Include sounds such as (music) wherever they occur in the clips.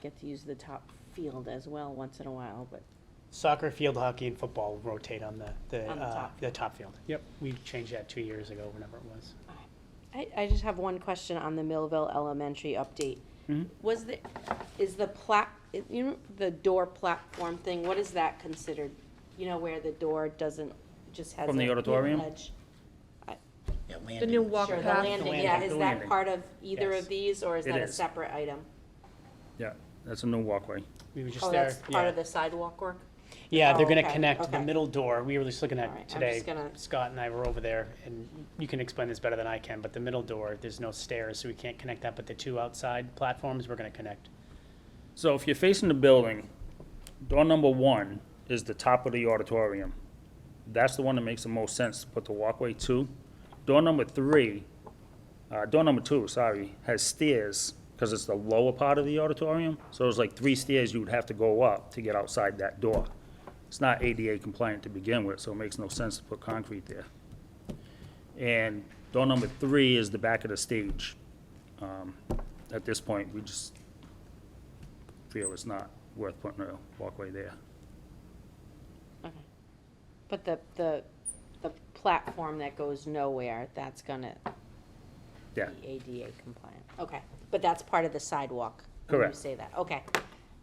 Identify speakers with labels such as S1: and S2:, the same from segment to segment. S1: get to use the top field as well once in a while, but
S2: Soccer, field hockey, and football rotate on the, the,
S1: On the
S2: uh,
S1: top.
S2: the top field. Yep, we changed that two years ago, whenever it was.
S1: I, I just have one question on the Millville Elementary update.
S3: Mm-hmm.
S2: Mhm.
S1: Was the, is the plat, you know, the door platform thing, what is that considered? You know, where the door doesn't, just has.
S3: From the
S1: a
S3: auditorium?
S1: ledge?
S4: The new walk
S1: Sure, the
S4: path.
S1: landing,
S2: landing,
S1: yeah, is
S3: the
S1: that
S3: landing.
S1: part of either of
S2: Yes.
S1: these, or is
S3: It
S1: that a
S3: is.
S1: separate item?
S3: Yeah, that's a new walkway.
S2: We were just
S1: Oh,
S2: there.
S1: that's part
S2: yeah.
S1: of the sidewalk work?
S2: Yeah, they're
S1: Oh,
S2: gonna
S1: okay,
S2: connect the
S1: okay.
S2: middle door. We were just looking
S1: All right, I'm
S2: at today.
S1: just gonna-
S2: Scott and I were over there, and you can explain this better than I can, but the middle door, there's no stairs, so we can't connect that, but the two outside platforms, we're gonna connect.
S3: So if you're facing the building, door number one is the top of the auditorium. That's the one that makes the most sense to put the walkway to. Door number three, uh, door number two, sorry, has stairs, because it's the lower part of the auditorium. So there's like three stairs you would have to go up to get outside that door. It's not ADA compliant to begin with, so it makes no sense to put concrete there. And door number three is the back of the stage. Um, At this point, we just feel it's not worth putting a walkway there.
S1: But the, the, the platform that goes nowhere, that's gonna
S3: Yeah,
S1: be ADA compliant, okay, but that's part of the sidewalk? when
S3: Correct.
S1: You say that, okay,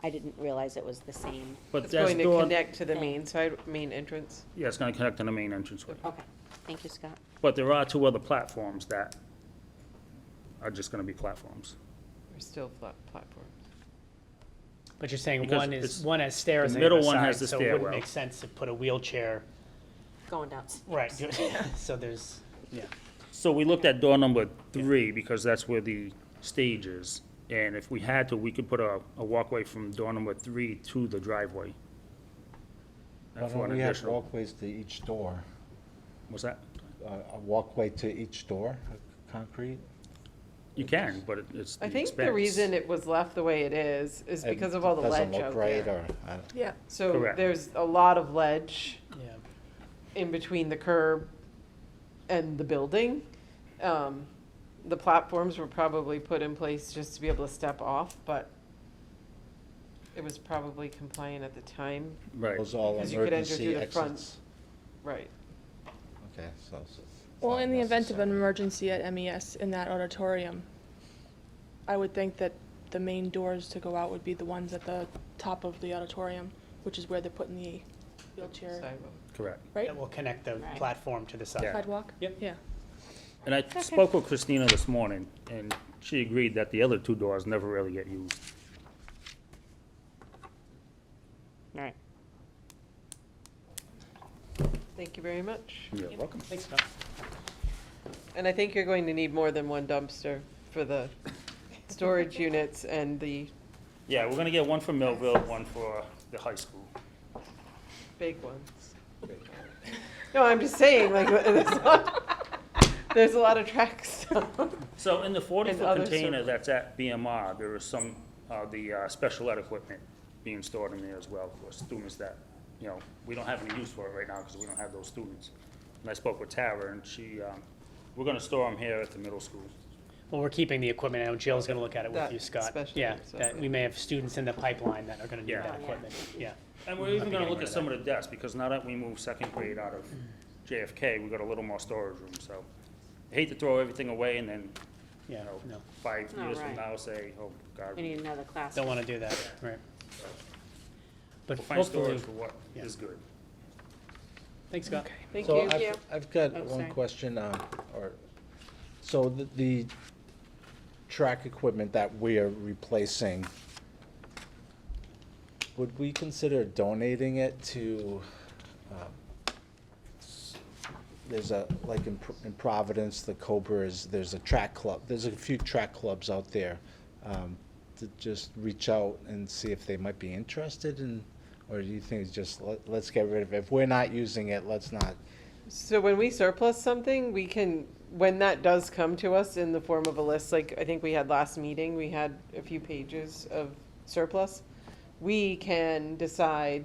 S1: I didn't realize it was the same,
S3: but
S5: It's
S3: that's
S5: going to
S3: door, yeah,
S5: connect to the main side, main entrance.
S3: it's gonna connect to the main entranceway.
S1: okay, thank you, Scott.
S3: But there are two other platforms that are just gonna be platforms.
S5: We're still flat platforms.
S2: But you're saying
S3: Because
S2: one is,
S3: it's-
S2: one has stairs
S3: the
S2: on the other
S3: middle one has
S2: side,
S3: the
S2: so it wouldn't
S3: stairwell.
S2: make sense to put a wheelchair,
S1: Going down.
S2: right, (laughs) so there's, yeah.
S3: So we looked at door number three, because that's where the stage is. And if we had to, we could put a, a walkway from door number three to the driveway.
S6: Why
S3: For
S6: don't
S3: an
S6: we have
S3: additional-
S6: walkways to each door?
S3: What's that?
S6: A a walkway to each door, concrete?
S3: You can, but it- it's the
S5: I
S3: expense.
S5: think the reason it was left the way it is, is
S6: It
S5: because of all the
S6: doesn't
S5: ledge
S6: look
S5: out
S6: right,
S5: there.
S6: or, uh, I don't-
S5: Yeah. So
S3: Correct.
S5: there's a lot of ledge
S2: Yeah,
S5: in between the curb and the building. Um, The platforms were probably put in place just to be able to step off, but it was probably compliant at the time,
S3: Right.
S6: those all
S5: Because you could enter
S6: emergency
S5: through the front.
S6: exits?
S5: right?
S6: Okay, so. it's- it's
S7: Well,
S6: not
S7: in the event of an
S6: necessary.
S7: emergency at MES in that auditorium, I would think that the main doors to go out would be the ones at the top of the auditorium, which is where they're putting the wheelchair,
S5: Sidewalk.
S3: Correct.
S7: right?
S2: that will connect the
S1: Right.
S2: platform to the side.
S3: Yeah.
S7: Sidewalk?
S2: Yep.
S7: Yeah.
S3: And I spoke with Christina this morning, and she agreed that the other two doors never really get used.
S1: All right.
S5: Thank you very much.
S3: You're welcome.
S2: Thanks, Scott.
S5: And I think you're going to need more than one dumpster for the storage units and the
S3: Yeah, we're gonna get one for Millville, one for the high school.
S5: big ones. No, I'm just saying, like, (laughs) there's a lot, there's a lot of track stuff.
S3: So in the
S5: And
S3: forty-foot
S5: other
S3: container
S5: service.
S3: that's at BMR, there is some, uh, the, uh, special ed equipment being stored in there as well for students that, you know, we don't have any use for it right now because we don't have those students. And I spoke with Tara, and she, um, we're gonna store them here at the middle school.
S2: Well, we're keeping the equipment. I know Jill's gonna look at it with
S5: That
S2: you, Scott.
S5: special
S2: Yeah,
S5: use,
S2: that
S5: okay.
S2: we may have students in the pipeline that are gonna need
S3: Yeah.
S2: that
S1: Yeah.
S2: equipment, yeah.
S3: And we're even gonna look at some of the desks, because now that we move second grade out of JFK, we got a little more storage room, so. I Hate to throw everything away and then, you
S2: Yeah,
S3: know,
S2: no,
S3: five
S1: No,
S3: years
S1: right.
S3: from now, say, oh, God,
S1: We
S3: we'll
S1: need another class.
S2: don't wanna do that, right. But
S3: find
S2: hopefully,
S3: storage for what
S2: yeah.
S3: is good.
S2: thanks, Scott.
S5: (laughs) Thank
S6: So
S5: you.
S6: I've, I've got
S1: Oh, sorry.
S6: one question, um, or, so the, the track equipment that we are replacing, would we consider donating it to, um, s- there's a, like in Pro- in Providence, the Cobra is, there's a track club, there's a few track clubs out there. um, To just reach out and see if they might be interested in, or do you think it's just, let, let's get rid of it? If we're not using it, let's not
S5: So when we surplus something, we can, when that does come to us in the form of a list, like I think we had last meeting, we had a few pages of surplus. We can decide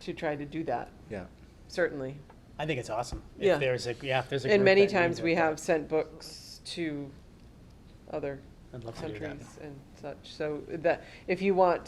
S5: to try to do that,
S6: Yeah,
S5: certainly.
S2: I think it's awesome.
S5: Yeah.
S2: If there's a, yeah, if there's a.
S5: And
S2: group
S5: many
S2: that needs
S5: times
S2: it,
S5: we
S2: that-
S5: have sent books to other
S2: I'd love to do that.
S5: countries and such. So that, if you want